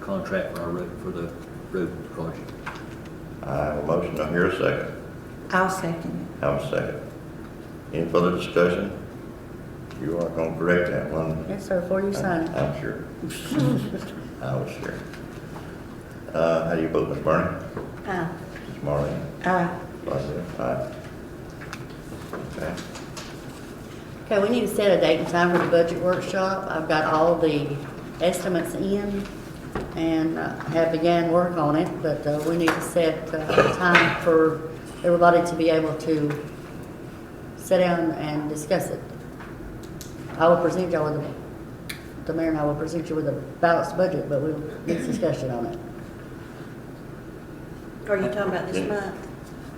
contract for our road, for the road project. I have a motion, I hear a second. I'll second Have a second. Any further discussion? You are gonna correct that one. Yes, sir, before you sign it. I'm sure. I was sure. Uh, how do you vote, Ms. Bernie? Aye. Ms. Marley? it. Aye. Vice Aye. Okay. Okay, we need to set a date and time for the budget workshop. I've got all the estimates in and uh, have began work on it, but uh, we need to set uh, a time for everybody to be able to sit down and discuss it. I will present y'all with, the- the mayor and I will present you with a balanced budget, but we'll get discussion on it. Are you talking about this month?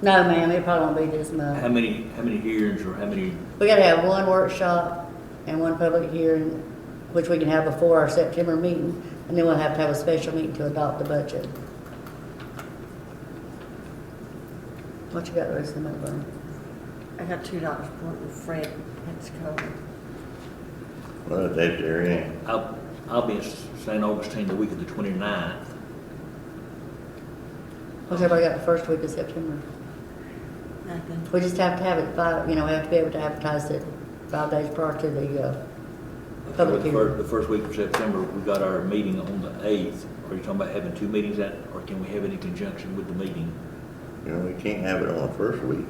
No, ma'am, it probably won't be this month. How many, how many hearings or how many, We gotta have one workshop and one public hearing, which we can have before our September meeting, and then we'll have to have a special meeting to adopt the budget. What you got, Rosie, the money burn? I got two dollars for Fred, that's covered. Well, that's there in. I'll, I'll be in St. Augustine the week of the 29th. What's everybody got the first week of September? Nothing. We just have to have it five, you know, we have to be able to advertise it five days prior to the, uh, Public The fir- hearing. The first week of September, we got our meeting on the eighth. Are you talking about having two meetings at, or can we have it in conjunction with the meeting, You know, we can't have it on the first week,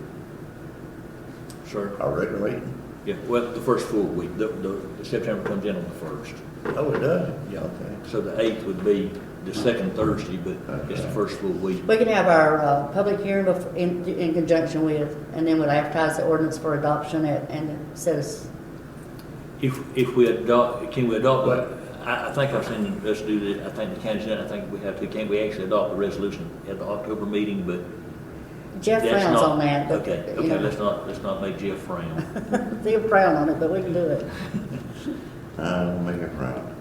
sir? our regular meeting. Yeah, well, the first full week, the, the, the September comes in on the first. Oh, it does? Yeah, Okay. so the eighth would be the second Thursday, but it's the Okay. first full week. we can have our, uh, public hearing bef- in, in conjunction with, and then we'll advertise the ordinance for adoption at, and set us, If, if we adopt, can we adopt, the- I, I think I've seen us do the, I think the county's done, it, I think we have to, can we actually adopt the resolution at the October meeting, but Jeff that's frowns not- on that, but, Okay, you okay, know. let's not, let's not make Jeff frown. They're proud on it, but we can do it. I'll make it round.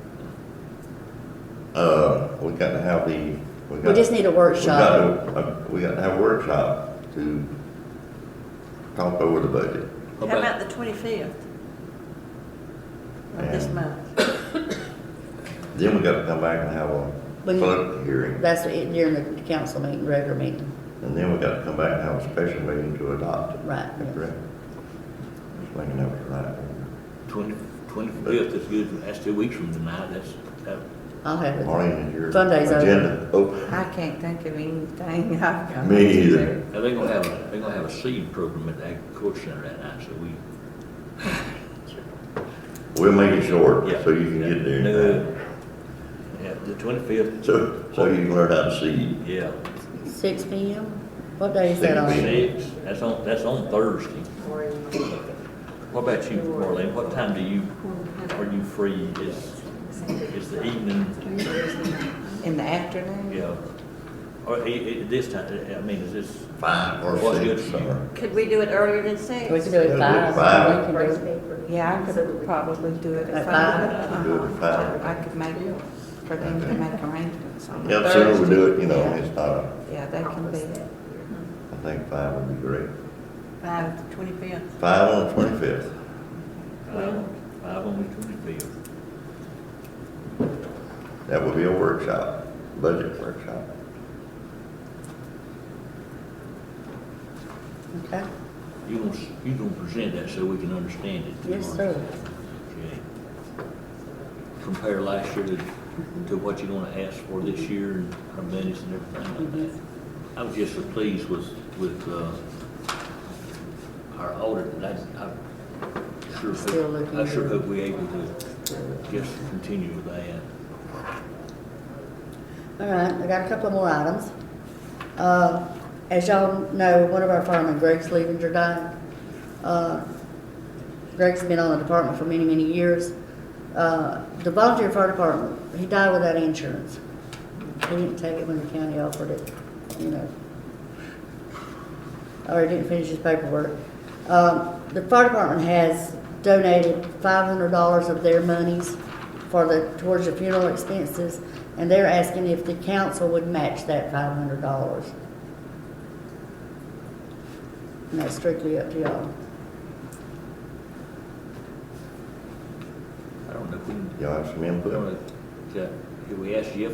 Uh, we gotta have the, we gotta. We just need a We gotta, workshop. uh, we gotta have a workshop to talk over the budget. How How about- about the twenty-fifth? Of this Yeah. month? Then we gotta come back and have a When- public hearing, That's it during the council meeting, regular meeting, and then we gotta come back and have a special meeting to adopt it. right? Is that yes. Correct? Just making that right. Twenty, twenty-fifth is good, that's two weeks from tonight, that's, that, I'll have it. Marlene, is your Sunday's over. agenda open? I can't think of anything I've got. Me either. now they're gonna have, a- they're gonna have a seed program at the agriculture center that night, so we. We'll make it short, yeah. so you can get there. in No, time. Yeah, the twenty-fifth, So, so you can learn how to see. yeah. Six P M? What day is that on? Six. Six, that's on, that's on Thursday. What about you, Marlene, what time do you, are you free, is, is the evening, In the afternoon? yeah? Or i- i- this time, I mean, is this, Five or What's good six, for you? or Could we do it earlier than six? We can do it five. Five. We can do it- Yeah, I could probably do it At at five? five. Uh-huh. do it at five. I could make, for them to make arrangements on Yeah, the sooner we Thursday. do it, you know, it's not, a- Yeah, they can be, I think five would be great. Five, twenty-fifth. Five on the twenty-fifth. five, uh, five on the twenty-fifth? That would be a workshop, budget workshop. Okay, You gonna, s- you gonna present that so we can understand it? yes, sir. Okay. Compare last year to, to what you're gonna ask for this year and our minutes and everything like that. I was just so pleased with, with, uh, our audit, and I, I sure Still hope, looking I sure good. hope we able to just continue with that. All right, I got a couple more items. Uh, As y'all know, one of our firemen, Greg's leaving Jordan. Uh, Greg's been on the department for many, many years. Uh, The volunteer fire department, he died without insurance. He didn't take it when the county offered it, you know. Or he didn't finish his paperwork. Um, The fire department has donated five hundred dollars of their monies for the, towards the funeral expenses, and they're asking if the council would match that five hundred dollars. And that's strictly up to y'all. I don't know if we, can- Y'all have some I input? don't know, if- yeah, if we ask Jeff